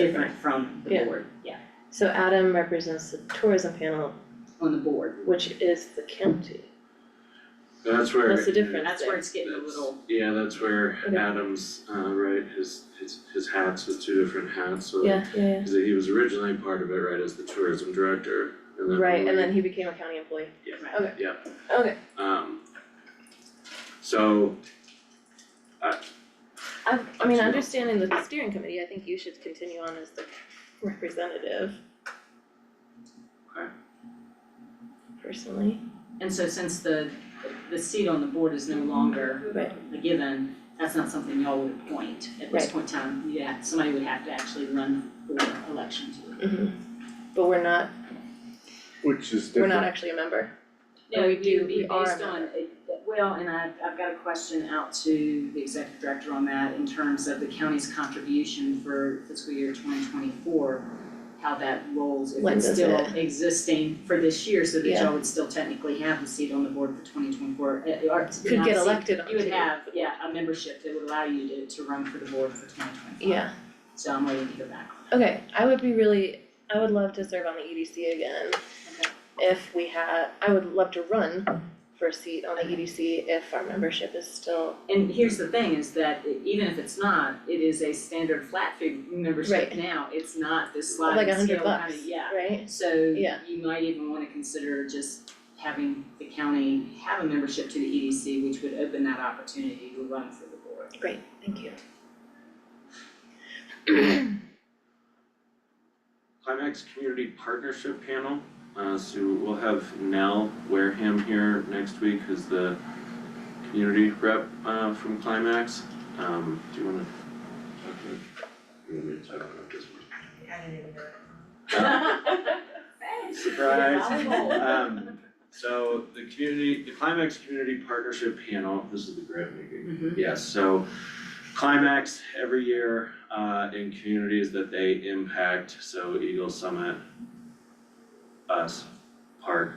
different from the Yeah. board, yeah, So Adam represents the tourism panel, on the board. which is the county. That's where. That's the difference. That's where it's getting a That's- little, Yeah, that's where Okay. Adams, uh, right, his, his, his hats, his two different hats, so. Yeah, yeah, yeah. Cause he was originally part of it, right, as the tourism director, and then. Right, and we- then he became a county employee. Yeah, Okay. yeah. Okay, Um. So, I, I mean, Sure. understanding the steering committee, I think you should continue on as the representative. Okay. Personally, and so since the, the seat on the board is no longer Right. a given, that's not something y'all would appoint at this Right. point in time. Yeah, somebody would have to actually run for election to it. mm-hmm. but we're not, Which is we're not different, actually a member. No, we it do- would be we are a based on, it- well, and I, I've got a question out to the executive director on that in terms of the county's contribution for fiscal year twenty twenty-four. How that rolls, if When it's does still existing for this year, so that Yeah. y'all would still technically have the seat on the board for twenty twenty-four, Uh, Could get elected on You would to- have, yeah, a membership that would allow you to, to run for the board for twenty twenty-five. Yeah, So I'm waiting to hear back. okay, I would be really, I would love to serve on the EDC again. Okay. If we had, I would love to run for a seat on the EDC if our membership is still And here's the thing is that even if it's not, it is a standard flat fee membership Right. now, it's not this like sliding a scale hundred kind bucks, of, yeah. right? So Yeah. you might even wanna consider just having the county have a membership to the EDC, which would open that opportunity to run for the board. Great, thank you. Climax Community Partnership Panel, uh, so we'll have Nell Wareham here next week, who's the community rep, uh, from Climax, um, do you wanna? talk to You want me to talk about this one? Surprise. Um, so the community, the Climax Community Partnership Panel, this is the grant making. Mhm. Yes, so Climax every year uh in communities that they impact, so Eagle Summit, us, Park.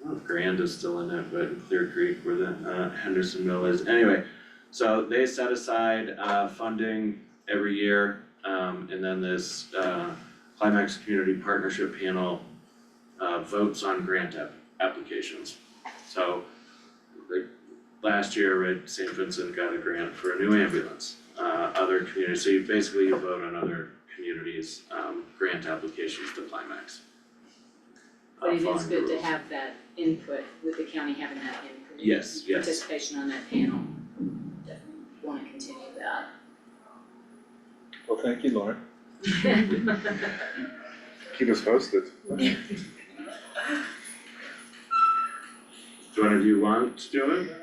I don't know if Grand is still in it, but Clear Creek where the uh Hendersonville is, anyway. So they set aside uh funding every year, um and then this uh Climax Community Partnership Panel uh votes on grant app- applications. So they last year, right, St. Vincent got a grant for a new ambulance. Uh, other communities, so you basically you vote on other communities' um grant applications to Climax. But Uh, it is following the good to rules. have that input, with the county having that input. Yes, yes. Participation on that panel. Definitely wanna continue that. Well, thank you, Lauren. keep us posted. Do one of you want to do it?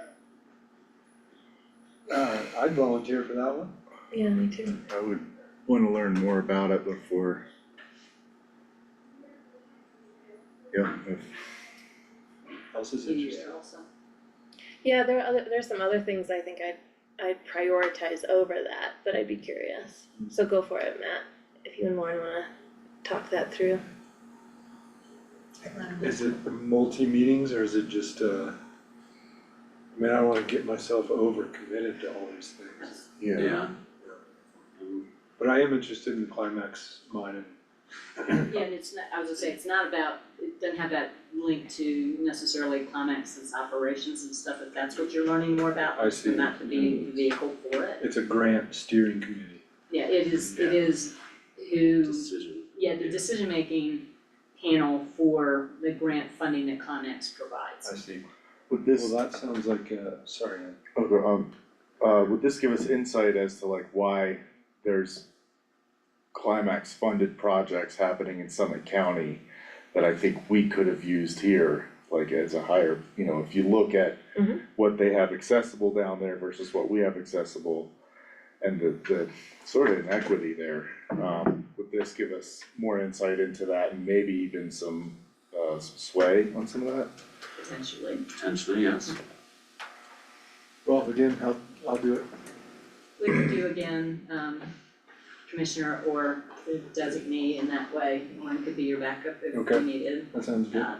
Uh, I'd volunteer for that one. Yeah, me too. I would wanna learn more about it before. Yeah, if, Else is Year interesting. also. Yeah, there are other, there's some other things I think I'd, I'd prioritize over that, but I'd be curious. So go for it, Matt, if you and Lauren wanna talk that through. Is it multi-meetings or is it just, uh, I mean, I don't wanna get myself overcommitted to all these things. yeah, Um, But I am interested in climax mining. Yeah, and it's not, I was gonna say, it's not about, it doesn't have that link to necessarily Climax's operations and stuff, if that's what you're learning more about. I see. Then that could be the Mm-hmm. vehicle for it. It's a grant steering committee. Yeah, it is, it Yeah. is who, Decision. yeah, the yeah. decision-making panel for the grant funding that Climax provides. I see. would Well, this, that sounds like, uh, sorry, okay, um, uh, would this give us insight as to like why there's climax funded projects happening in Summit County that I think we could have used here, like as a higher, you know, if you look at Mhm. what they have accessible down there versus what we have accessible and the, the sort of inequity there, um, would this give us more insight into that and maybe even some, uh, some sway on some of that? Potentially. Potentially, yes. Well, again, I'll, I'll do it. We could do again, um, commissioner or the designee in that way, one could be your backup if Okay. we needed. That sounds good. Uh,